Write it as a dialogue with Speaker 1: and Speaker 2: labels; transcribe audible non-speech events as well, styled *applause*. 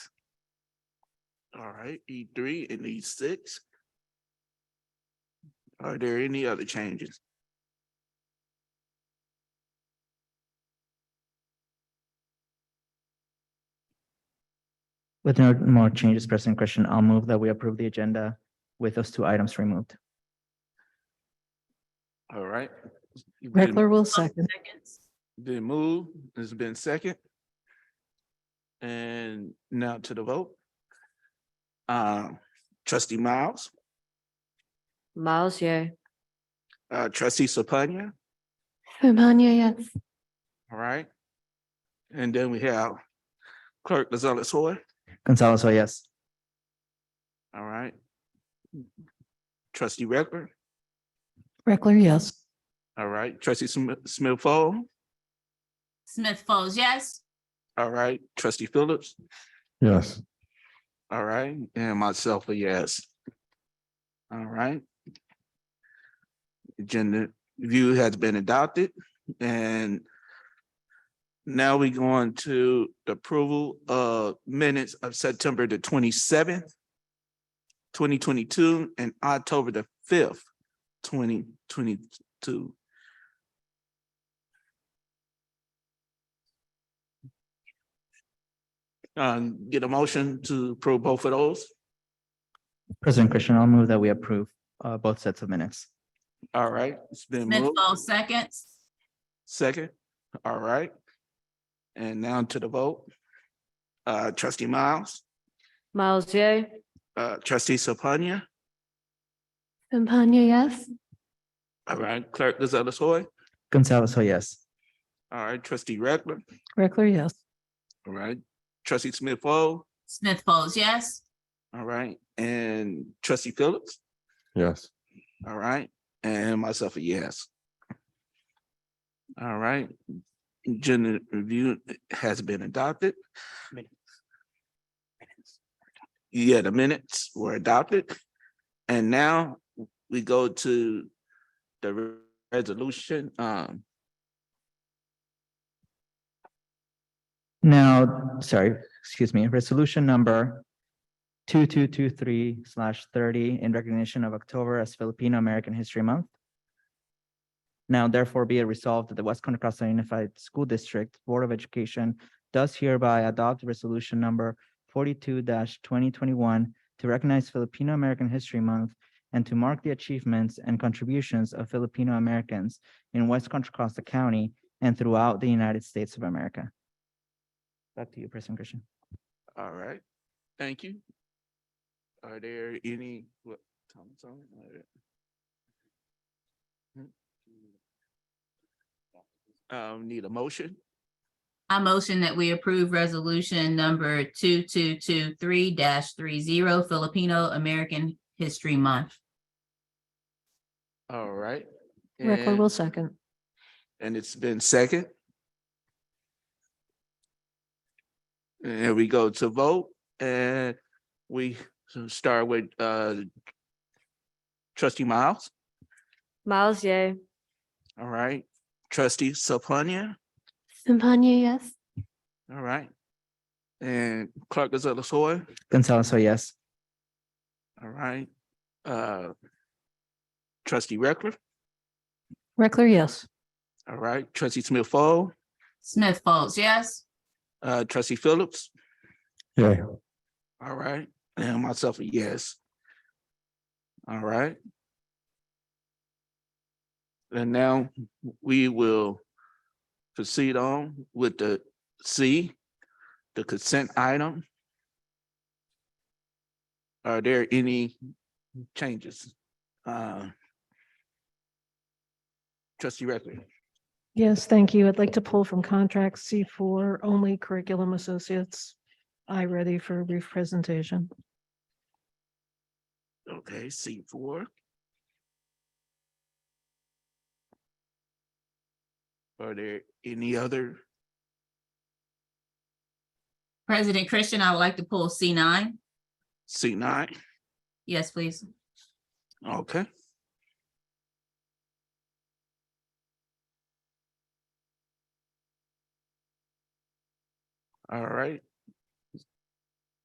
Speaker 1: All right, E three and E six. Are there any other changes?
Speaker 2: With no more changes, President Christian, I'll move that we approve the agenda with those two items removed.
Speaker 1: All right. Been-
Speaker 3: Reckler will second.
Speaker 1: Been moved, it's been second. And now to the vote. Um, trustee Miles,
Speaker 4: Miles, yeah.
Speaker 1: uh, trustee Sapanya,
Speaker 3: Umania, yes.
Speaker 1: all right? And then we have clerk Lozella Soy,
Speaker 2: Gonzalez, oh yes.
Speaker 1: all right? Trustee Reckler,
Speaker 3: Reckler, yes.
Speaker 1: all right, trustee Smith, Smith Fall,
Speaker 5: Smith Falls, yes.
Speaker 1: all right, trustee Phillips,
Speaker 6: Yes.
Speaker 1: All right, and myself a yes. All right. Agenda view has been adopted and now we go on to the approval of minutes of September the twenty-seventh, twenty twenty-two and October the fifth, twenty twenty-two. Um, get a motion to approve both of those.
Speaker 2: President Christian, I'll move that we approve uh, both sets of minutes.
Speaker 1: All right, it's been
Speaker 5: Smith
Speaker 1: moved.
Speaker 5: Falls, seconds.
Speaker 1: Second, all right. And now to the vote. Uh, trustee Miles,
Speaker 4: Miles, yeah.
Speaker 1: uh, trustee Sapanya,
Speaker 3: Umania, yes.
Speaker 1: all right, clerk Lozella Soy,
Speaker 2: Gonzalez, oh yes.
Speaker 1: all right, trustee Reckler,
Speaker 3: Reckler, yes.
Speaker 1: all right, trustee Smith Fall,
Speaker 5: Smith Falls, yes.
Speaker 1: all right, and trustee Phillips,
Speaker 6: Yes.
Speaker 1: all right, and myself a yes. All right, agenda review has been adopted. Yeah, the minutes were adopted. And now we go to the re- resolution. Um,
Speaker 2: Now, sorry, excuse me, resolution number two, two, two, three slash thirty in recognition of October as Filipino American History Month. Now therefore be it resolved that the West Contra Costa Unified School District Board of Education does hereby adopt resolution number forty-two twenty twenty-one to recognize Filipino American History Month and to mark the achievements and contributions of Filipino Americans in West Contra Costa County and throughout the United States of America. Back to you, President Christian.
Speaker 1: all right, thank you. Are there any, what, comments on it? All right. Um, need a motion?
Speaker 5: I motion that we approve resolution number two, two, two, three three zero Filipino American History Month.
Speaker 1: All right.
Speaker 3: Reckler
Speaker 1: and-
Speaker 3: will second.
Speaker 1: And it's been second. And we go to vote and we start with uh trustee Miles,
Speaker 4: Miles, yeah.
Speaker 1: all right, trustee Sapanya,
Speaker 3: Umania, yes.
Speaker 1: all right. And clerk Gonzalez Soy,
Speaker 2: Gonzalez, oh yes.
Speaker 1: all right. Uh Trustee Reckler,
Speaker 3: Reckler, yes.
Speaker 1: all right, trustee Smith Fall,
Speaker 5: Smith Falls, yes.
Speaker 1: uh trustee Phillips,
Speaker 6: Yeah.
Speaker 1: All right, *clears throat* and myself a yes. All right. And now we will proceed on with the C, the consent item. Are there any changes? Uh, Trustee Reckler,
Speaker 7: Yes, thank you. I'd like to pull from contract C four, only curriculum associates. I ready for a brief presentation.
Speaker 1: okay, C four. Are there any other
Speaker 5: President Christian, I would like to pull C nine.
Speaker 1: C nine?
Speaker 5: Yes, please.
Speaker 1: Okay. All right,